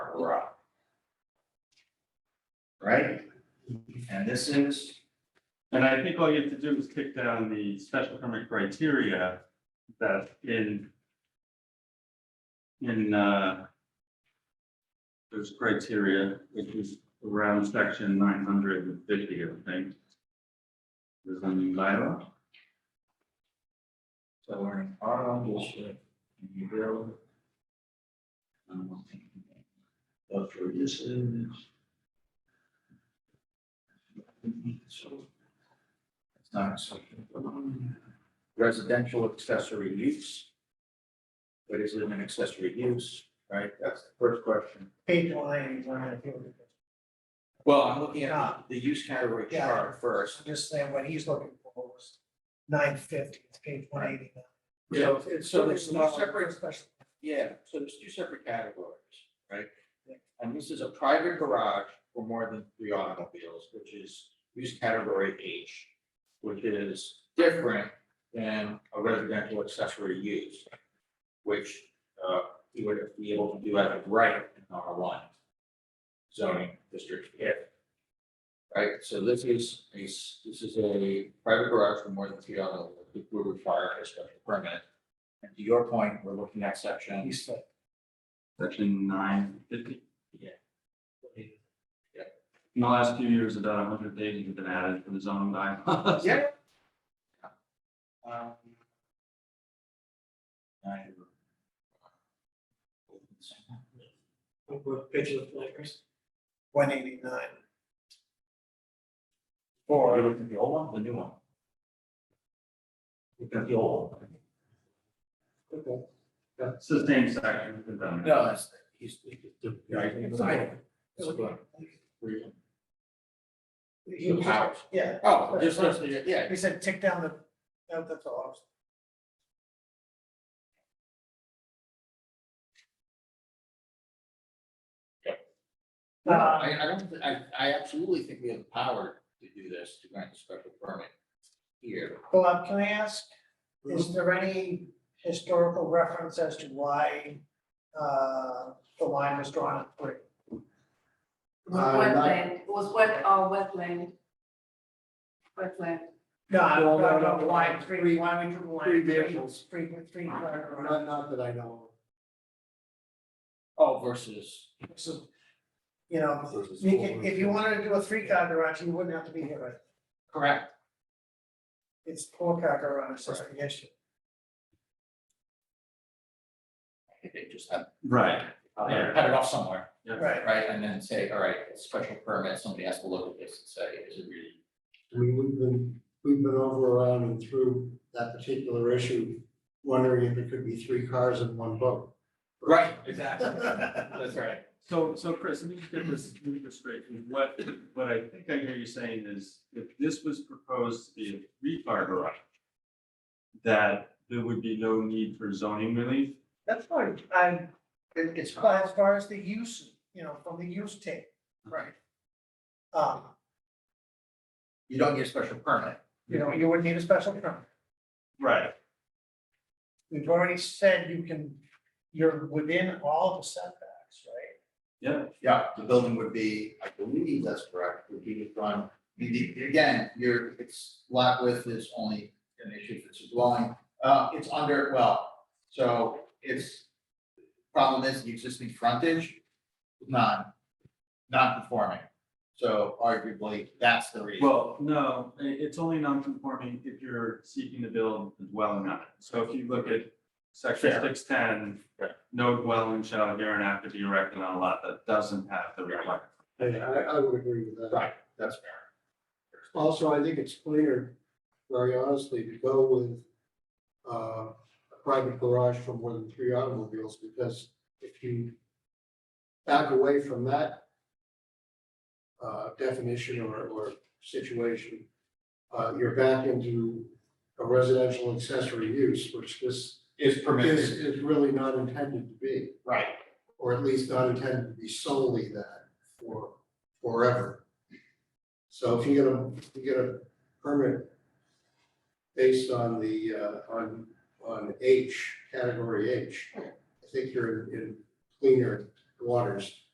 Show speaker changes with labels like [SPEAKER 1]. [SPEAKER 1] Road. Right? And this is,
[SPEAKER 2] And I think all you have to do is kick down the special permit criteria that in. In, uh. There's criteria, which is around section nine hundred and fifty, I think. There's a new bylaw,
[SPEAKER 1] so we're in auto, bullshit, you will. I don't think. But for this is. So. It's not acceptable. Residential accessory use. But is it an accessory use, right? That's the first question.
[SPEAKER 3] page one, I feel,
[SPEAKER 1] Well, I'm looking at the use category
[SPEAKER 3] Yeah.
[SPEAKER 1] chart first.
[SPEAKER 3] I'm just saying what he's looking for was nine fifty, it's page one eighty.
[SPEAKER 1] So it's, so there's no separate,
[SPEAKER 3] special.
[SPEAKER 1] yeah, so there's two separate categories, right? And this is a private garage for more than three automobiles, which is use category H, which is different than a residential accessory use, which uh you would be able to do as of right in R one zoning district if Right, so this is a, s- this is a private garage for more than three auto, it would require a special permit. And to your point, we're looking at section.
[SPEAKER 3] He's like,
[SPEAKER 2] section nine fifty.
[SPEAKER 1] Yeah. Yeah.
[SPEAKER 2] In the last few years, about hundred pages have been added for the zoning bylaws.
[SPEAKER 1] Yeah. Um, nine.
[SPEAKER 3] what page of the flyers? One eighty nine. Or,
[SPEAKER 1] Or you looking at the old one, or the new one? Look at the old one.
[SPEAKER 2] It's the same section. it's done.
[SPEAKER 1] No, that's, he's. Right.
[SPEAKER 3] he was, yeah,
[SPEAKER 1] Oh, just, just- yeah,
[SPEAKER 3] he said tick down the, that- that's all. I was-
[SPEAKER 1] No,
[SPEAKER 3] Uh,
[SPEAKER 1] I, I don't, thi- I, I absolutely think we have the power to do this, to grant a special permit here.
[SPEAKER 3] Bob, um, can I ask, is there any historical reference as to why uh, the line was drawn at three?
[SPEAKER 4] Uh,
[SPEAKER 5] Was wetland, was wet, uh, wetland. Wetland.
[SPEAKER 3] No, I
[SPEAKER 4] No,
[SPEAKER 3] don't
[SPEAKER 4] no, no,
[SPEAKER 3] know why
[SPEAKER 4] no.
[SPEAKER 3] three, why we drew the line.
[SPEAKER 4] Three vehicles.
[SPEAKER 3] Three, three, three.
[SPEAKER 4] Not, not that I know
[SPEAKER 1] Oh, versus.
[SPEAKER 3] So, You know,
[SPEAKER 4] of.
[SPEAKER 3] you can- if you wanted to do a three car garage, you wouldn't have to be here, right?
[SPEAKER 1] Correct.
[SPEAKER 3] It's four car garage, that's the issue.
[SPEAKER 1] They just have,
[SPEAKER 2] Right,
[SPEAKER 1] uh, cut it off somewhere,
[SPEAKER 3] Right,
[SPEAKER 1] right, and then say, all right, it's special permit, somebody has to look at this and say, is it really?
[SPEAKER 4] I mean, we've been, we've been over around and through that particular issue, wondering if it could be three cars in one boat.
[SPEAKER 1] Right, exactly, that's right.
[SPEAKER 2] So, so Chris, let me just get this, let me get this straight. What, what I think I hear you saying is if this was proposed to be a three-car garage, that there would be no need for zoning relief?
[SPEAKER 3] that's fine, I,
[SPEAKER 1] It- It's fine.
[SPEAKER 3] but as far as the use, you know, from the use tape. Right. Um,
[SPEAKER 1] You don't need a special permit.
[SPEAKER 3] you know, you wouldn't need a special permit,
[SPEAKER 2] Right.
[SPEAKER 3] we've already said you can, you're within all the setbacks, right?
[SPEAKER 2] Yeah,
[SPEAKER 1] Yeah, the building would be, I believe that's correct, would be from, again, your, it's lot width is only an issue if it's a dwelling. Uh, it's under, well, so it's, problem is the existing frontage, is non, non-conforming. So arguably, that's the reason.
[SPEAKER 2] well, no, i- it's only non-conforming if you're seeking to build a dwelling on it. So if you look at section
[SPEAKER 1] Fair.
[SPEAKER 2] six ten,
[SPEAKER 1] Fair.
[SPEAKER 2] no dwelling shall hereinafter be erected on a lot that doesn't have the requirement.
[SPEAKER 4] I, I, I would agree with that.
[SPEAKER 1] Right, that's fair.
[SPEAKER 4] Also, I think it's cleaner, very honestly, to go with uh, a private garage for more than three automobiles, because if you back away from that uh, definition or, or situation, uh, you're back into a residential accessory use, which this
[SPEAKER 1] Is
[SPEAKER 4] is,
[SPEAKER 1] permitted,
[SPEAKER 4] is really not intended to be,
[SPEAKER 1] right,
[SPEAKER 4] or at least not intended to be solely that for forever. So if you get a, if you get a permit based on the, uh, on, on H, category H, I think you're in- in cleaner waters